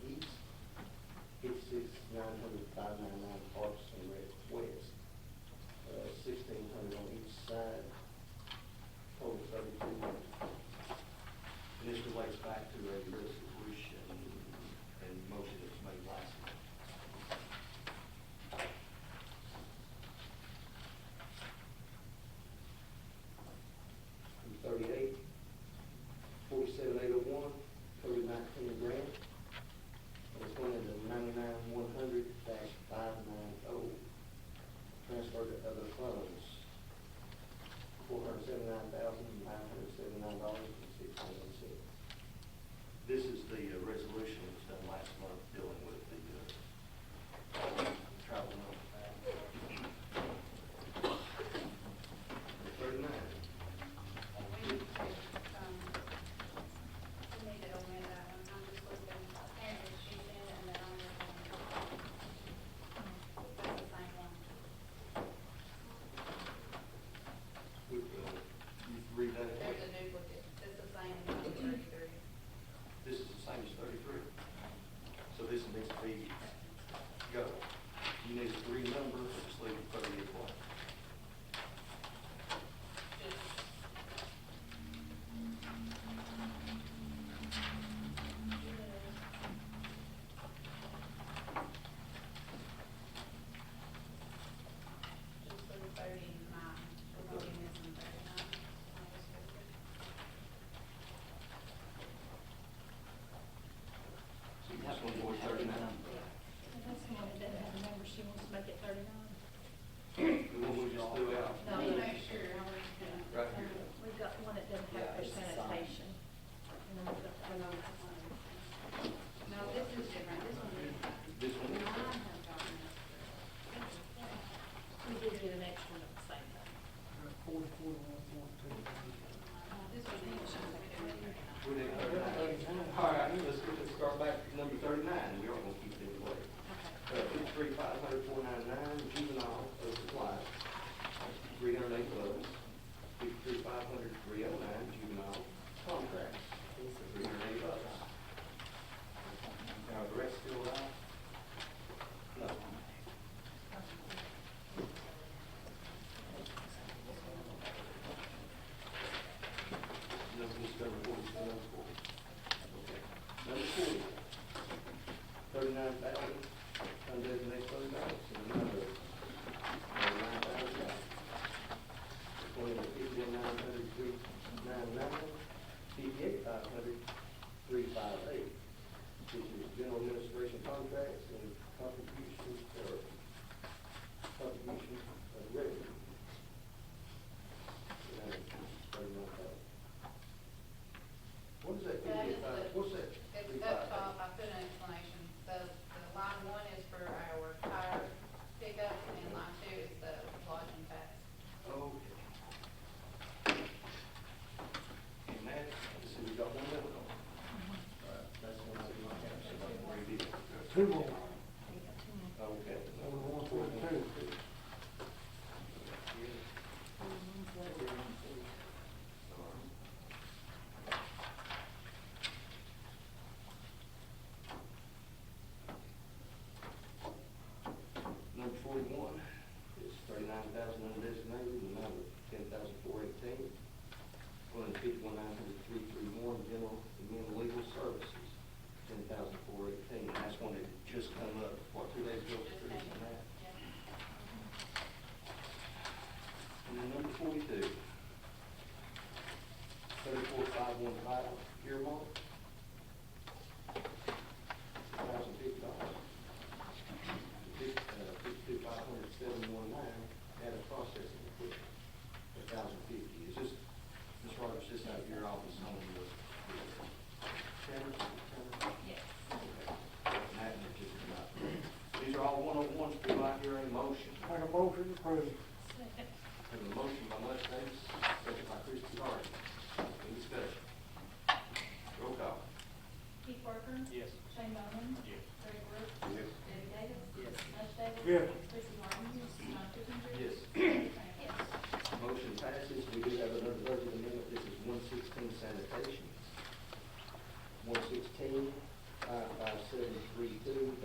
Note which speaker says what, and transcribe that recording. Speaker 1: oh. back to number thirty-nine, we aren't gonna keep it in place. Uh, fifty-three, five hundred, four nine nine, juvenile, oversupply, three hundred eight lows. Fifty-three, five hundred, three oh nine, juvenile, contract, three hundred eight lows. Now, the rest still out? No. Number, this number forty, number forty. Okay. Number forty, thirty-nine thousand, undesignated fund balance, and another thirty-nine thousand dollars. Twenty, fifty-nine hundred, three, nine, nine, fifty-eight, five hundred, three, five, eight. This is general administration contracts and contributions, or contribution of revenue. And that is thirty-nine thousand. What is that
Speaker 2: That is
Speaker 1: fifty-five,
Speaker 2: the-
Speaker 1: what's that?
Speaker 2: It's up
Speaker 1: 55?
Speaker 2: top, I put an explanation, the, the line one is for our tire pickup, and line two is the lodging tax.
Speaker 1: Okay. And that, so we got one left on. Alright, That's one I did not have, so I'm gonna read it.
Speaker 3: Two more.
Speaker 1: Okay.
Speaker 3: Number one forty-two.
Speaker 1: Number forty-one is thirty-nine thousand undesignated, and another ten thousand four eighteen. One fifty-one nine hundred three three one, general and men legal services, ten thousand four eighteen. And that's one that just come up, what, two days ago,
Speaker 2: Just
Speaker 1: Patricia,
Speaker 2: saying.
Speaker 1: and that?
Speaker 2: Yeah.
Speaker 1: And then number forty-two. Thirty-four five one five, earmark. Thousand fifty dollars. uh, Fifty-two five hundred seven one nine, data processing equipment, a thousand fifty. Is this, Ms. Rogers, this out of your office on the, Tanner, Tanner?
Speaker 2: Yes.
Speaker 1: Okay. And that one just about, these are all one-on-ones, do I hear a motion?
Speaker 3: Make a motion to approve.
Speaker 1: Have a motion by Les Davis, second by Christie Harden. Any discussion? Roll call.
Speaker 4: Keith Parker.
Speaker 1: Yes.
Speaker 4: Shane Bowman.